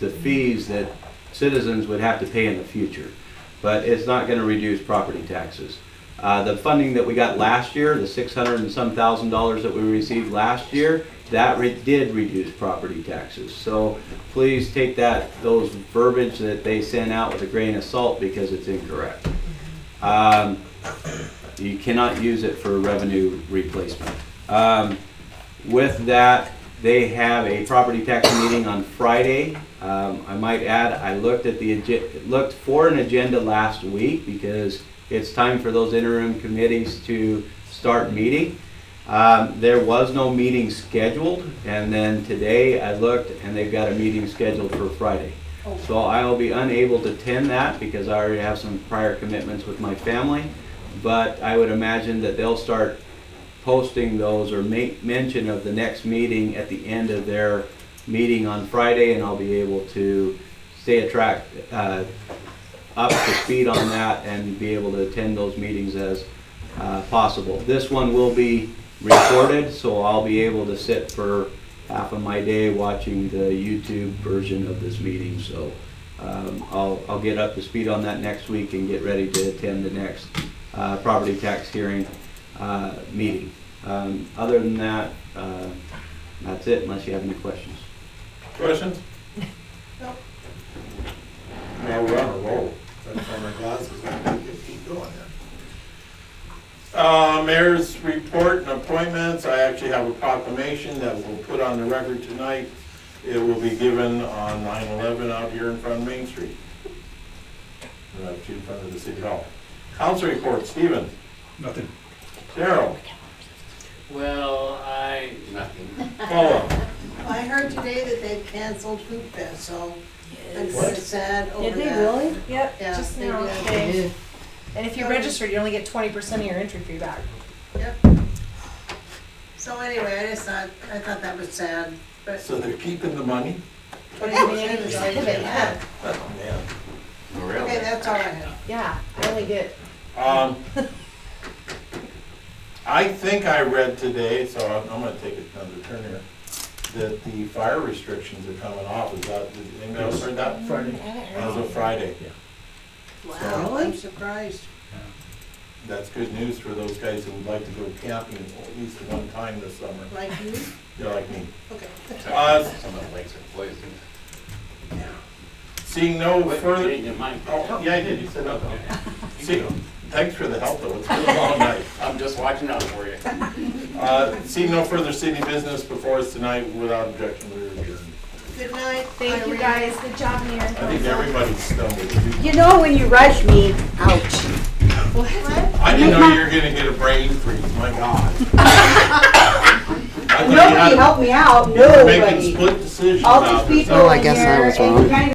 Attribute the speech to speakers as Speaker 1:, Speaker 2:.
Speaker 1: the fees that citizens would have to pay in the future. But it's not gonna reduce property taxes. Uh, the funding that we got last year, the six hundred and some thousand dollars that we received last year, that re- did reduce property taxes. So please take that, those verbiage that they sent out with a grain of salt because it's incorrect. Um, you cannot use it for revenue replacement. Um, with that, they have a property tax meeting on Friday. Um, I might add, I looked at the, agen- looked for an agenda last week because it's time for those interim committees to start meeting. Um, there was no meeting scheduled, and then today I looked and they've got a meeting scheduled for Friday. So I will be unable to attend that because I already have some prior commitments with my family. But I would imagine that they'll start posting those or make mention of the next meeting at the end of their meeting on Friday, and I'll be able to stay attract, uh, up to speed on that and be able to attend those meetings as, uh, possible. This one will be recorded, so I'll be able to sit for half of my day watching the YouTube version of this meeting, so, um, I'll, I'll get up to speed on that next week and get ready to attend the next, uh, property tax hearing uh, meeting. Um, Other than that, uh, that's it, unless you have any questions.
Speaker 2: Questions?
Speaker 3: Now we're on a roll. That's why my glasses aren't good. Keep going
Speaker 2: Uh, mayor's report and appointments, I actually have a proclamation that we'll put on the record tonight. It will be given on 9/11 out here in front of Main Street. Uh, to in front of the city hall. Council report, Stephen,
Speaker 4: Nothing.
Speaker 2: Daryl,
Speaker 5: Well, I, nothing.
Speaker 2: Paula,
Speaker 6: Well, I heard today that they canceled Food Fest, so I'm
Speaker 3: What?
Speaker 6: kinda sad over that.
Speaker 7: Did they really?
Speaker 8: Yep,
Speaker 6: Yeah,
Speaker 8: just
Speaker 6: they
Speaker 8: now.
Speaker 6: did.
Speaker 8: today. And if you
Speaker 6: Um,
Speaker 8: register, you only get twenty percent of your entry fee back.
Speaker 6: Yep. So anyway, I just thought, I thought that was sad, but.
Speaker 2: so they're keeping the money?
Speaker 6: What
Speaker 8: Yeah, we only decided it, yeah.
Speaker 2: Oh, man.
Speaker 5: Oh,
Speaker 6: Okay, that's all I have.
Speaker 8: Yeah, I only get,
Speaker 2: Um, I think I read today, so I'm, I'm gonna take another turn here, that the fire restrictions are coming off, is that, did anybody else heard that?
Speaker 4: Friday.
Speaker 2: As of Friday,
Speaker 6: Wow, I'm surprised.
Speaker 2: that's good news for those guys who would like to go camping at least one time this summer,
Speaker 6: Like you?
Speaker 2: they're like me.
Speaker 6: Okay.
Speaker 2: Uh,
Speaker 5: Some of the lakes are poisoned.
Speaker 2: Seeing no
Speaker 5: But you
Speaker 2: further,
Speaker 5: didn't get mine.
Speaker 2: oh, yeah, I did, you said no. See,
Speaker 5: You go.
Speaker 2: thanks for the help though, it's been a long night.
Speaker 5: I'm just watching out for you.
Speaker 2: Uh, seeing no further city business before us tonight, without objection, we're adjourned.
Speaker 6: Good night.
Speaker 8: thank you
Speaker 6: Irene.
Speaker 8: guys, good job, Mayor.
Speaker 2: I think everybody stumbled.
Speaker 7: You know when you rush me, ouch.
Speaker 2: I didn't know you were gonna get a brain freeze, my God. I thought you
Speaker 7: Nobody
Speaker 2: had-
Speaker 7: helped me out,
Speaker 2: you were Making
Speaker 7: nobody.
Speaker 2: split decisions
Speaker 7: All
Speaker 2: out
Speaker 7: these
Speaker 2: there.
Speaker 7: people in here, and you kind of